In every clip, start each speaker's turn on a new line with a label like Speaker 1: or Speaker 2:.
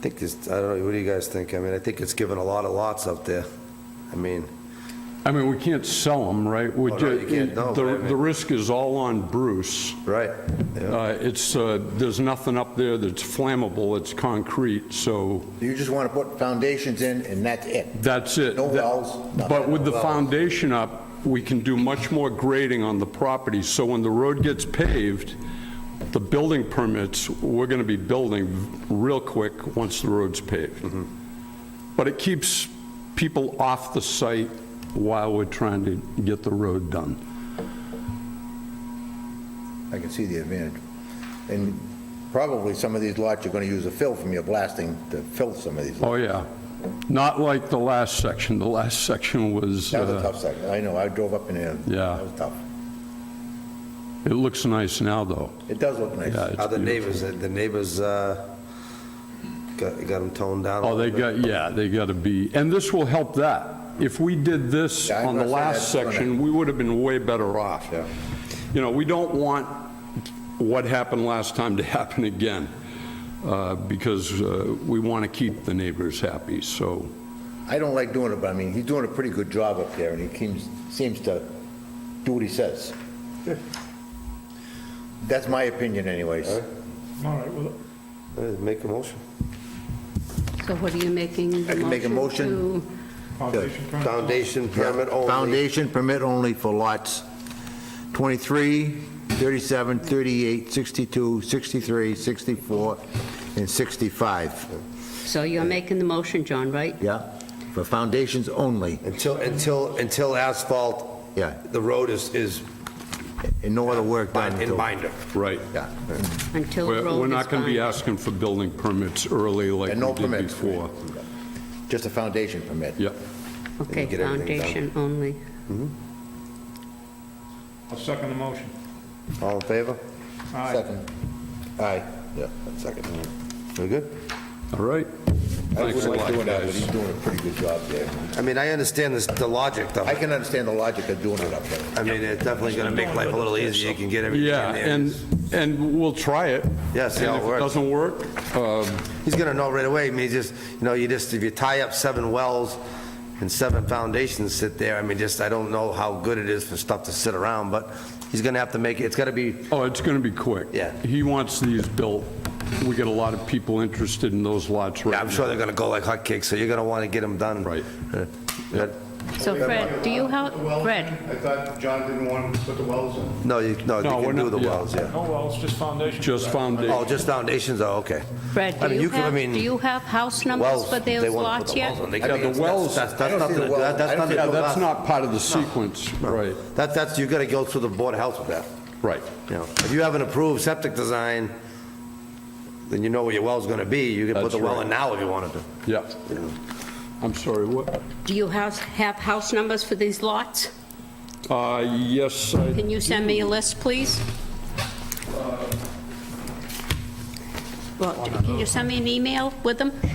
Speaker 1: think it's, I don't know, what do you guys think? I mean, I think it's given a lot of lots out there. I mean,
Speaker 2: I mean, we can't sell them, right? We
Speaker 1: Oh, no, you can't, no,
Speaker 2: The,
Speaker 1: I mean-
Speaker 2: the risk is all on Bruce.
Speaker 1: right, yeah.
Speaker 2: Uh, It's, uh, there's nothing up there that's flammable, it's concrete, so
Speaker 3: You just want to put foundations in and that's it.
Speaker 2: that's it.
Speaker 3: No
Speaker 2: That-
Speaker 3: wells, nothing,
Speaker 2: But with
Speaker 3: no
Speaker 2: the
Speaker 3: wells.
Speaker 2: foundation up, we can do much more grading on the property, so when the road gets paved, the building permits, we're going to be building real quick once the road's paved.
Speaker 3: Mm-hmm.
Speaker 2: But it keeps people off the site while we're trying to get the road done.
Speaker 3: I can see the advantage. And probably some of these lots, you're going to use a fill from your blasting to fill some of these.
Speaker 2: Oh, yeah. Not like the last section. The last section was,
Speaker 3: That was a
Speaker 2: uh,
Speaker 3: tough section. I know, I drove up in there.
Speaker 2: Yeah.
Speaker 3: That was tough.
Speaker 2: it looks nice now, though.
Speaker 3: It does look nice.
Speaker 2: Yeah,
Speaker 1: How
Speaker 2: it's
Speaker 1: the
Speaker 2: beautiful.
Speaker 1: neighbors, the neighbors uh, got got them toned down. a
Speaker 2: Oh, they
Speaker 1: little bit.
Speaker 2: got, yeah, they got to be, and this will help that. If we did this
Speaker 3: Yeah, I'm
Speaker 2: on the
Speaker 3: gonna say
Speaker 2: last
Speaker 3: that's gonna-
Speaker 2: section, we would have been way better off.
Speaker 3: Yeah.
Speaker 2: You know, we don't want what happened last time to happen again, uh, because uh, we want to keep the neighbors happy, so,
Speaker 3: I don't like doing it, but I mean, he's doing a pretty good job up there and he keeps, seems to do what he says. That's my opinion anyways.
Speaker 4: All right, well,
Speaker 1: Uh, Make a motion.
Speaker 5: So what are you making? the
Speaker 3: I can make a motion.
Speaker 5: to-
Speaker 4: foundation permit.
Speaker 1: Foundation permit only.
Speaker 3: Foundation permit only for lots 23, 37, 38, 62, 63, 64, and 65.
Speaker 5: So you're making the motion, John, right?
Speaker 3: Yeah, for foundations only,
Speaker 1: Until, until, until asphalt,
Speaker 3: yeah,
Speaker 1: the road is, is
Speaker 3: and no other work done.
Speaker 1: in
Speaker 3: until-
Speaker 1: binder.
Speaker 2: right.
Speaker 3: Yeah,
Speaker 5: Until the
Speaker 2: We're
Speaker 5: road
Speaker 2: we're
Speaker 5: is
Speaker 2: not going to be
Speaker 5: fine.
Speaker 2: asking for building permits early like
Speaker 3: And no
Speaker 2: we did
Speaker 3: permits.
Speaker 2: before.
Speaker 3: just a foundation permit.
Speaker 2: Yep.
Speaker 5: Okay,
Speaker 1: get everything done.
Speaker 5: foundation only.
Speaker 4: I'll second the motion.
Speaker 3: All in favor?
Speaker 4: Aye.
Speaker 3: Second. Aye. Yeah.
Speaker 1: Second. We're good?
Speaker 2: All right.
Speaker 3: I
Speaker 2: Thanks a
Speaker 3: wouldn't like
Speaker 2: lot,
Speaker 3: doing that, but
Speaker 2: guys.
Speaker 3: he's doing a pretty good job there.
Speaker 1: I mean, I understand this, the logic though.
Speaker 3: I can understand the logic of doing it up there.
Speaker 1: I mean, it's definitely gonna make life a little easier. You can get everything in
Speaker 2: Yeah,
Speaker 1: there.
Speaker 2: and, and we'll try it.
Speaker 1: Yeah, see how it works.
Speaker 2: And if it doesn't work, um,
Speaker 1: He's gonna know right away, I mean, just, you know, you just, if you tie up seven wells and seven foundations sit there, I mean, just, I don't know how good it is for stuff to sit around, but he's gonna have to make, it. it's gotta be,
Speaker 2: oh, it's going to be quick.
Speaker 1: Yeah.
Speaker 2: He wants these built. We get a lot of people interested in those lots right now.
Speaker 1: I'm sure they're gonna go like hotcakes, so you're gonna wanna get them done.
Speaker 2: Right.
Speaker 1: Uh, but-
Speaker 5: So Fred, do you help, Fred,
Speaker 6: I thought John didn't want to put the wells in.
Speaker 1: No, you, no,
Speaker 2: No,
Speaker 1: you
Speaker 2: we're
Speaker 1: can do
Speaker 2: not-
Speaker 1: the
Speaker 2: yeah.
Speaker 1: wells, yeah.
Speaker 4: No wells, just foundation.
Speaker 2: Just
Speaker 1: Oh,
Speaker 2: foundation.
Speaker 1: just foundations, oh, okay.
Speaker 5: Fred,
Speaker 1: I
Speaker 5: do
Speaker 1: mean,
Speaker 5: you
Speaker 1: can- I
Speaker 5: have,
Speaker 1: mean,
Speaker 5: do you have house numbers
Speaker 1: wells,
Speaker 5: for
Speaker 1: they
Speaker 5: those
Speaker 1: wanna put
Speaker 5: lots
Speaker 1: the
Speaker 5: yet?
Speaker 1: wells on. They
Speaker 2: Yeah,
Speaker 1: can-
Speaker 2: the
Speaker 1: that's-
Speaker 2: wells-
Speaker 1: That's,
Speaker 3: I
Speaker 1: that's
Speaker 3: don't see
Speaker 1: nothing,
Speaker 3: the well.
Speaker 1: that-
Speaker 3: I
Speaker 1: that's
Speaker 3: don't
Speaker 1: nothing.
Speaker 3: see
Speaker 2: Yeah,
Speaker 1: to
Speaker 2: that's
Speaker 1: us.
Speaker 2: not part of the sequence, right,
Speaker 1: That's, that's, you gotta go through the board of health with that.
Speaker 2: right.
Speaker 1: You know, if you have an approved septic design, then you know where your well's gonna be. You can put
Speaker 2: That's
Speaker 1: the well in
Speaker 2: right.
Speaker 1: now if you wanted to.
Speaker 2: Yeah. I'm sorry, what?
Speaker 5: Do you have, have house numbers for these lots?
Speaker 2: Uh, Yes, I-
Speaker 5: Can you send me a list, please? Well, can you send me an email with them?
Speaker 4: The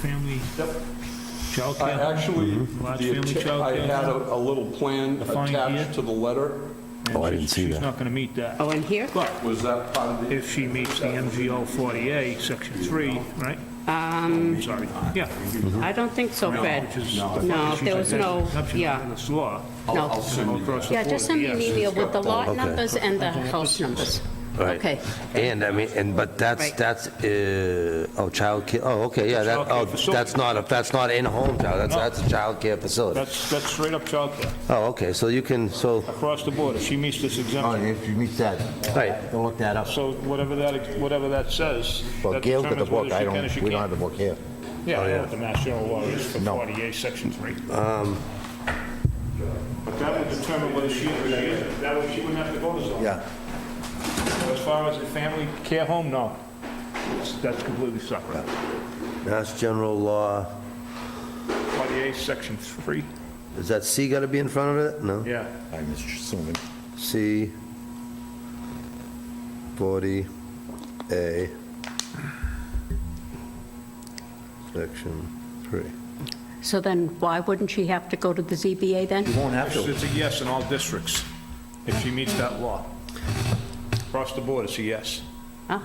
Speaker 4: family
Speaker 2: I
Speaker 4: childcare.
Speaker 2: actually,
Speaker 4: Large
Speaker 2: the
Speaker 4: Mm-hmm. family
Speaker 2: atta- I
Speaker 4: childcare.
Speaker 2: had a a little plan
Speaker 4: Defined here.
Speaker 2: attached to the letter.
Speaker 4: Oh, I didn't see that. She's not going to meet that.
Speaker 5: Oh, in here?
Speaker 4: But
Speaker 2: Was that part of the?
Speaker 4: if she meets the MGO 40A, Section 3, right? Um. Sorry, yeah.
Speaker 5: I don't think so, Fred.
Speaker 4: Which is-
Speaker 5: No, there was no,
Speaker 4: Exception to
Speaker 5: yeah,
Speaker 4: this law.
Speaker 5: no.
Speaker 4: all across the
Speaker 5: Yeah, just send me an
Speaker 4: 40As.
Speaker 5: email with the lot
Speaker 1: Okay.
Speaker 5: numbers and the house numbers. Okay.
Speaker 1: And I mean, and, but that's,
Speaker 5: Right.
Speaker 1: that's, uh, oh, childcare, oh, okay, yeah, that,
Speaker 4: Childcare
Speaker 1: oh,
Speaker 4: facility.
Speaker 1: that's not, a that's not in-home child, that's,
Speaker 4: No.
Speaker 1: that's a childcare facility.
Speaker 4: That's, that's straight up childcare,
Speaker 1: Oh, okay, so you can, so,
Speaker 4: across the board, if she meets this
Speaker 3: Oh,
Speaker 4: exemption.
Speaker 3: if you meet that,
Speaker 1: right,
Speaker 3: go look that up.
Speaker 4: So whatever that, whatever that says,
Speaker 3: Well,
Speaker 4: that
Speaker 3: Gail's got the
Speaker 4: determines whether
Speaker 3: book, I
Speaker 4: she can or
Speaker 3: don't,
Speaker 4: she
Speaker 3: we don't have
Speaker 4: can't.
Speaker 3: the book here.
Speaker 4: Yeah, I know what the Mass General law is for 40A, Section 3. But that would determine whether she, or she is- that way she wouldn't have to go to zoning.
Speaker 3: Yeah.
Speaker 4: As far as the family care home, no. It's- That's completely separate.
Speaker 1: Mass General Law,
Speaker 4: 40A, Section 3,
Speaker 1: is that C gotta be in front of it? No?
Speaker 4: yeah.
Speaker 3: I'm assuming.
Speaker 1: C, 40A, section 3.
Speaker 5: So then why wouldn't she have to go to the ZBA then?
Speaker 3: You won't have
Speaker 4: It's
Speaker 3: to.
Speaker 4: it's a yes in all districts, if she meets that law. Across the board, it's a yes.